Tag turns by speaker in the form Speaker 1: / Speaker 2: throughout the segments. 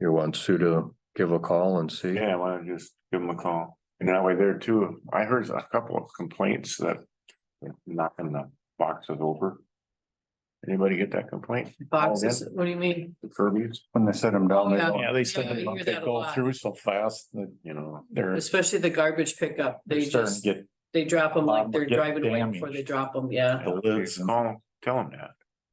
Speaker 1: you want Sue to give a call and see?
Speaker 2: Yeah, why don't you just give them a call? And that way there too, I heard a couple of complaints that they're knocking the boxes over. Anybody get that complaint?
Speaker 3: Boxes, what do you mean?
Speaker 2: The Kirby's,
Speaker 4: When they set them down, they
Speaker 3: Yeah.
Speaker 4: don't-
Speaker 5: Yeah, they
Speaker 3: Yeah, I
Speaker 5: said
Speaker 3: hear
Speaker 5: they
Speaker 3: that a
Speaker 5: go
Speaker 3: lot.
Speaker 5: through so fast that
Speaker 2: you know,
Speaker 5: they're.
Speaker 3: Especially the garbage pickup, they
Speaker 5: they're starting to
Speaker 3: just,
Speaker 5: Get
Speaker 3: they drop them like
Speaker 5: Um,
Speaker 3: they're
Speaker 5: get
Speaker 3: driving away before
Speaker 5: damaged.
Speaker 3: they drop them, yeah.
Speaker 5: the lids and
Speaker 2: call, tell them that.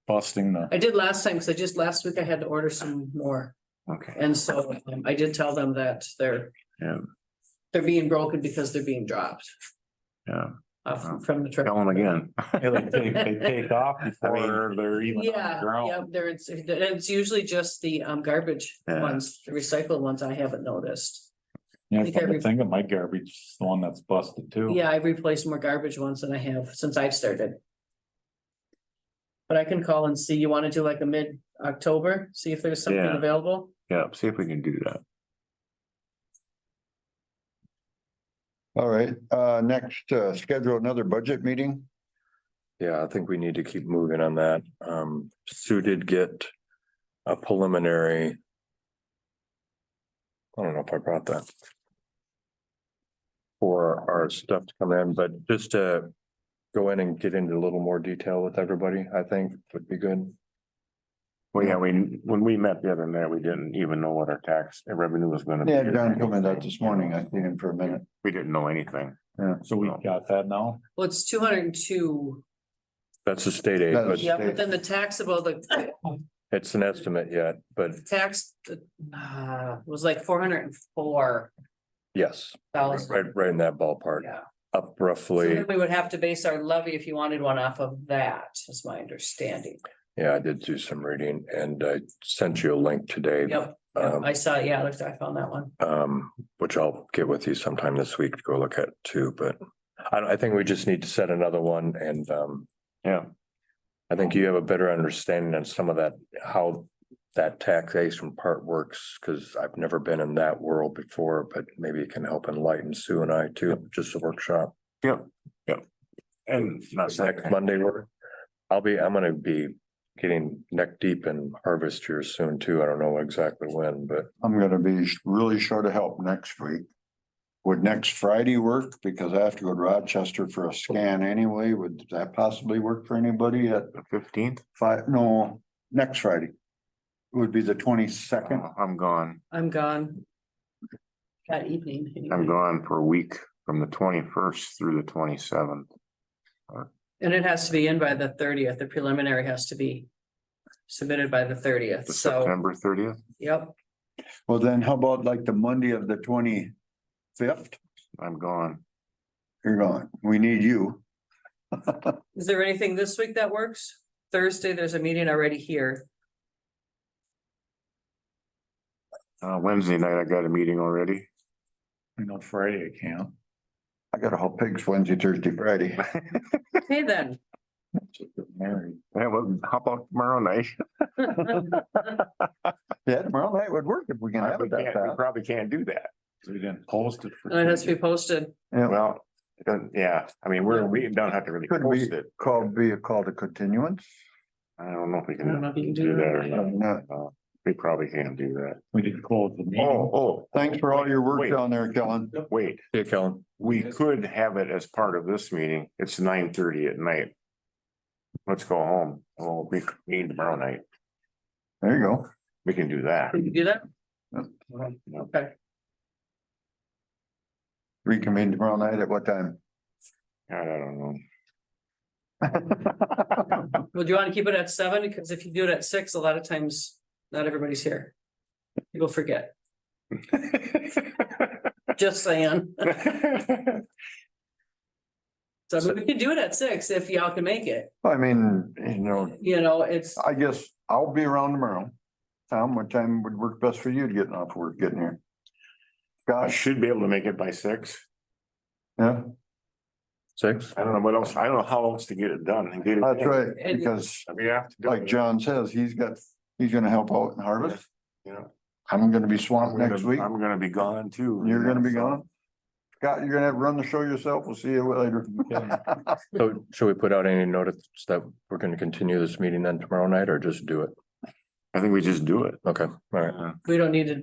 Speaker 5: busting the,
Speaker 3: I did last time, because I just, last week I had to order some more,
Speaker 2: Okay,
Speaker 3: and so um, I did tell them that they're.
Speaker 2: Yeah.
Speaker 3: They're being broken because they're being dropped
Speaker 2: yeah,
Speaker 3: off
Speaker 2: Wow.
Speaker 3: from the truck.
Speaker 2: tell them again.
Speaker 5: yeah, they take, they take off before
Speaker 2: mean,
Speaker 5: they're even on the
Speaker 3: Yeah, yeah,
Speaker 5: ground.
Speaker 3: there it's, it's usually just the um garbage
Speaker 2: Yeah.
Speaker 3: ones, the recycled ones I haven't noticed.
Speaker 5: Yeah,
Speaker 3: think
Speaker 5: I'm
Speaker 3: every-
Speaker 5: thinking my garbage is the one that's busted too.
Speaker 3: Yeah, I've replaced more garbage ones than I have since I've started. But I can call and see, you wanna do like a mid-October, see if there's something
Speaker 2: Yeah.
Speaker 3: available?
Speaker 2: Yeah, see if we can do that.
Speaker 4: all right, uh, next, uh, schedule another budget meeting.
Speaker 1: Yeah, I think we need to keep moving on that. Um, Sue did get a preliminary. I don't know if I brought that. For our stuff to come in, but just to go in and get into a little more detail with everybody, I think would be good.
Speaker 2: Well, yeah, we, when we met the other night, we didn't even know what our tax uh, revenue was gonna be.
Speaker 4: Yeah, John commented out this morning. I seen him for a minute.
Speaker 2: We didn't know anything.
Speaker 5: So we got that now.
Speaker 3: Well, it's two hundred and two,
Speaker 1: That's a state aid, but
Speaker 3: yeah, but then the taxable, the
Speaker 1: it's an estimate yet, but
Speaker 3: tax, uh, was like four hundred and four
Speaker 1: yes,
Speaker 3: thousand.
Speaker 1: right, right in that ballpark,
Speaker 3: Yeah,
Speaker 1: up
Speaker 3: so
Speaker 1: roughly.
Speaker 3: then we would have to base our levy if you wanted one off of that, is my understanding.
Speaker 1: Yeah, I did do some reading and I sent you a link today.
Speaker 3: Yep,
Speaker 1: Um,
Speaker 3: I saw, yeah, I looked, I found that one.
Speaker 1: um, which I'll get with you sometime this week to go look at too, but I, I think we just need to set another one and, um,
Speaker 2: Yeah.
Speaker 1: I think you have a better understanding on some of that, how that taxation part works, because I've never been in that world before, but maybe it can help enlighten Sue and I too, just a workshop.
Speaker 2: Yep, yep. And not
Speaker 1: Next
Speaker 2: second,
Speaker 1: Monday, we're, I'll be, I'm gonna be getting neck deep in harvest here soon too. I don't know exactly when, but
Speaker 4: I'm gonna be sh- really short of help next week. Would next Friday work? Because I have to go to Rochester for a scan anyway. Would that possibly work for anybody at
Speaker 2: the fifteenth,
Speaker 4: five? No, next Friday. Would be the twenty-second.
Speaker 2: I'm gone.
Speaker 3: I'm gone. That evening. anyway.
Speaker 2: I'm gone for a week from the twenty-first through the twenty-seventh.
Speaker 3: And it has to be in by the thirtieth, the preliminary has to be submitted by the thirtieth, so,
Speaker 2: September thirtieth,
Speaker 3: yep,
Speaker 4: Well, then how about like the Monday of the twenty-fifth?
Speaker 2: I'm gone.
Speaker 4: You're gone. We need you.
Speaker 3: is there anything this week that works? Thursday, there's a meeting already here,
Speaker 2: Uh, Wednesday night, I got a meeting already.
Speaker 5: You know, Friday I can't.
Speaker 4: I gotta haul pigs Wednesday, Thursday, Friday.
Speaker 3: okay then.
Speaker 5: Married.
Speaker 2: Yeah, well, how about tomorrow night?
Speaker 4: Yeah, tomorrow night would work if we can have
Speaker 2: We
Speaker 4: it that
Speaker 2: can't- we
Speaker 4: fast.
Speaker 2: Probably can't do that.
Speaker 5: We didn't post it for.
Speaker 3: And it has to be posted,
Speaker 4: Yeah,
Speaker 2: Well, it doesn't- yeah, I mean, we're, we don't have to really
Speaker 4: Could we
Speaker 2: post it.
Speaker 4: call, be a call to continuance? uh,
Speaker 2: I don't know if we
Speaker 3: I don't know
Speaker 2: can
Speaker 3: if you can
Speaker 2: do
Speaker 3: do
Speaker 2: that or
Speaker 3: that.
Speaker 2: not.
Speaker 4: No.
Speaker 2: We probably can't do that.
Speaker 5: We didn't close the meeting.
Speaker 2: Oh, oh,
Speaker 4: Thanks for all your work
Speaker 2: Wait.
Speaker 4: down there, Kellen.
Speaker 2: wait,
Speaker 1: yeah, Kellen,
Speaker 2: we could have it as part of this meeting. It's nine thirty at night. Let's go home. We'll be meeting tomorrow night.
Speaker 4: There you go.
Speaker 2: We can do that.
Speaker 3: Can you do that?
Speaker 2: No.
Speaker 3: Okay,
Speaker 4: Reconvene tomorrow night at what time?
Speaker 2: I don't know.
Speaker 3: well, do you wanna keep it at seven, because if you do it at six, a lot of times, not everybody's here. People forget, just saying, so I mean, we can do it at six if y'all can make it,
Speaker 4: I mean, you know,
Speaker 3: you know, it's.
Speaker 4: I guess I'll be around tomorrow. Tom, what time would work best for you to get off work, getting here?
Speaker 2: I
Speaker 4: Gosh,
Speaker 2: should be able to make it by six.
Speaker 4: yeah,
Speaker 1: six?
Speaker 2: I don't know what else, I don't know how else to get it done and get it.
Speaker 4: that's
Speaker 2: in.
Speaker 4: right,
Speaker 3: And-
Speaker 4: because
Speaker 2: I mean, I have to do
Speaker 4: like
Speaker 2: it.
Speaker 4: John says, he's got, he's gonna help out in harvest.
Speaker 2: You know,
Speaker 4: I'm gonna be
Speaker 2: I'm
Speaker 4: swamped
Speaker 2: gonna-
Speaker 4: next week.
Speaker 2: I'm gonna be gone too.
Speaker 4: You're gonna be
Speaker 2: So,
Speaker 4: gone. Scott, you're gonna have to run the show yourself. We'll see you later.
Speaker 1: So should we put out any notice that we're gonna continue this meeting then tomorrow night or just do it?
Speaker 2: I think we just do it.
Speaker 1: Okay, all right.
Speaker 2: Yeah.
Speaker 3: We don't need to